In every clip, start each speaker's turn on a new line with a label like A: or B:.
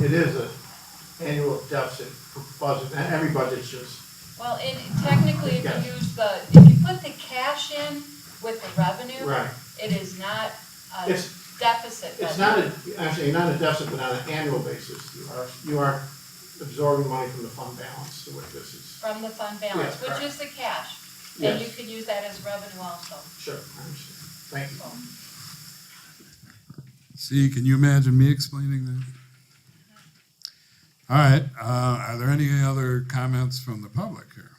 A: it is an annual deficit budget, and every budget's just,
B: Well, and technically, if
A: Yes.
B: you use the, if you put the cash in with the revenue,
A: right.
B: it is not a
A: It's-
B: deficit
A: It's
B: budget.
A: not a, actually, not a deficit, but on an annual basis, you are, you are absorbing money from the fund balance, the way this is.
B: From the fund balance,
A: Yeah,
B: which
A: correct.
B: is the cash, and you
A: Yes,
B: could use that as revenue also,
A: sure, I understand. Thank you.
B: so.
C: See, can you imagine me explaining that? All right, uh, are there any other comments from the public here?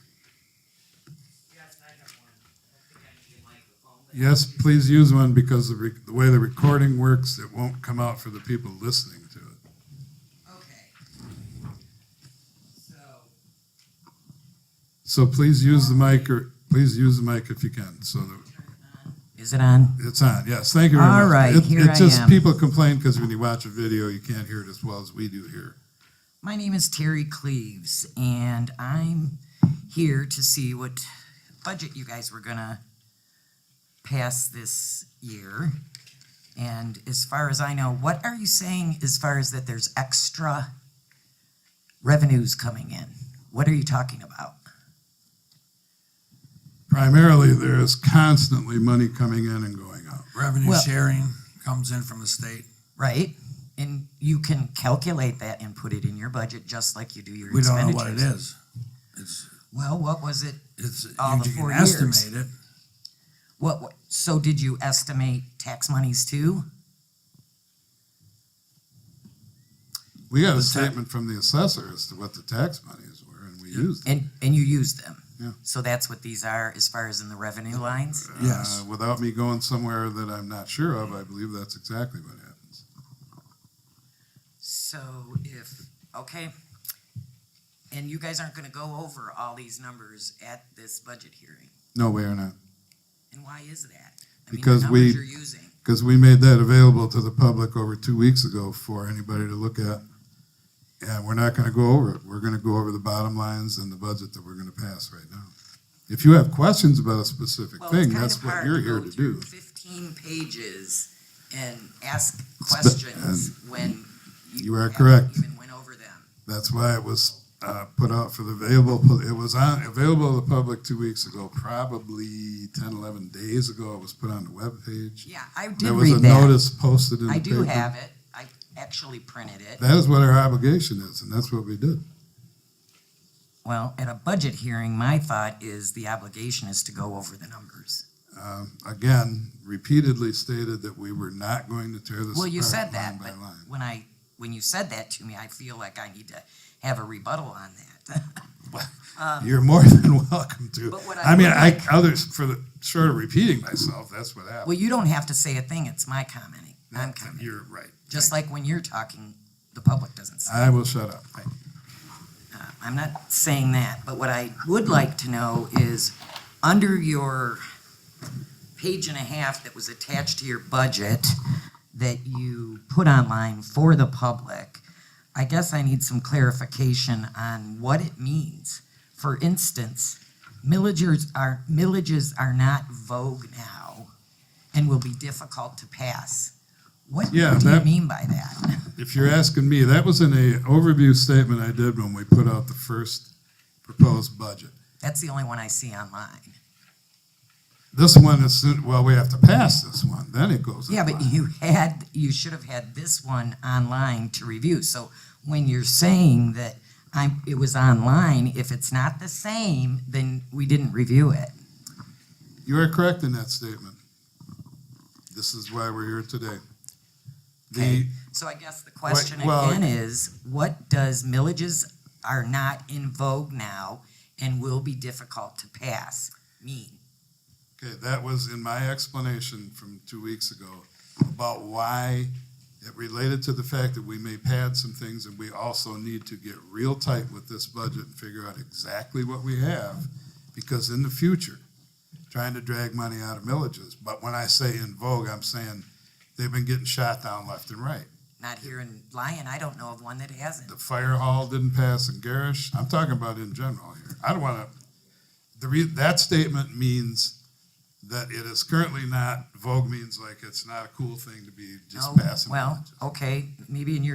D: Yes, I have one. I don't think I need a microphone. but-
C: Yes, please use one because the, rec- the way the recording works, it won't come out for the people listening to it.
D: Okay. So,
C: So please use the mic or, please use the mic if you can, so that
D: turn on. Is it on?
C: it's on. Yes, thank you very much.
D: All right,
C: It-
D: here
C: It's
D: I
C: just
D: am.
C: people complain because when you watch a video, you can't hear it as well as we do here.
D: My name is Terry Cleaves, and I'm here to see what budget you guys were gonna pass this year. And as far as I know, what are you saying as far as that there's extra revenues coming in? What are you talking about?
C: Primarily, there is constantly money coming in and going out.
E: Revenue
D: Well-
E: sharing comes in from the state.
D: Right? And you can calculate that and put it in your budget just like you do your
E: We
D: expenditures.
E: don't know what it is. It's,
D: Well, what was it?
E: it's,
D: All the
E: you can
D: four years.
E: estimate it.
D: What, wa- so did you estimate tax monies too?
C: We got a
E: The ta-
C: statement from the assessor as to what the tax monies were, and we used it.
D: And, and you used them?
C: Yeah.
D: So that's what these are as far as in the revenue lines?
E: Yes.
C: Uh, Without me going somewhere that I'm not sure of, I believe that's exactly what happens.
D: So if, okay, and you guys aren't gonna go over all these numbers at this budget hearing,
C: No, we are not,
D: and why is that? I mean, the
C: Because we-
D: numbers You're using,
C: because we made that available to the public over two weeks ago for anybody to look at. And we're not gonna go over it. We're gonna go over the bottom lines and the budget that we're gonna pass right now. If you have questions about a specific
D: well, it's
C: thing,
D: kind
C: that's
D: of
C: what
D: hard
C: you're
D: to
C: here
D: go
C: to do.
D: through fifteen pages and ask
C: been-
D: questions when
C: You are
D: haven't
C: correct.
D: Even went over them.
C: That's why it was uh, put out for the available, it was on, available to the public two weeks ago, probably 10, 11 days ago. It was put on the webpage.
D: Yeah, I did
C: There was a
D: read that.
C: notice posted in the
D: I
C: paper.
D: do have it. I actually printed it.
C: That is what our obligation is, and that's what we did.
D: Well, at a budget hearing, my thought is the obligation is to go over the numbers.
C: Um, Again, repeatedly stated that we were not going to tear this
D: Well, you said
C: apart line
D: that,
C: by
D: but
C: line.
D: when I, when you said that to me, I feel like I need to have a rebuttal on that. Uh,
C: You're more than welcome to.
D: But what I
C: I mean,
D: would
C: I, others, for the, short of repeating myself, that's what
D: Well,
C: happened.
D: you don't have to say a thing. It's my commenting. I'm commenting.
C: You're right.
D: Just like when you're talking, the public doesn't say.
C: I will shut up. Thank you.
D: Uh, I'm not saying that, but what I would like to know is, under your page and a half that was attached to your budget that you put online for the public, I guess I need some clarification on what it means. For instance, millagers are, millages are not vogue now and will be difficult to pass. What do
C: Yeah,
D: you
C: that-
D: mean by that?
C: If you're asking me, that was in a overview statement I did when we put out the first proposed budget.
D: That's the only one I see online.
C: This one is, well, we have to pass this one, then it goes
D: Yeah, but
C: online.
D: you had, you should have had this one online to review. So when you're saying that I'm, it was online, if it's not the same, then we didn't review it.
C: You are correct in that statement. This is why we're here today. The,
D: Okay. So I guess the question
C: well-
D: again is, what does millages are not in vogue now and will be difficult to pass mean?
C: okay, that was in my explanation from two weeks ago about why it related to the fact that we may pad some things and we also need to get real tight with this budget and figure out exactly what we have. Because in the future, trying to drag money out of millages, but when I say in vogue, I'm saying they've been getting shot down left and right.
D: Not here in Lyon, I don't know of one that hasn't.
C: The fire hall didn't pass in Garish. I'm talking about in general here. I don't want to, the re, that statement means that it is currently not, vogue means like it's not a cool thing to be just
D: No?
C: passing.
D: Well,
C: villages.
D: okay, maybe in your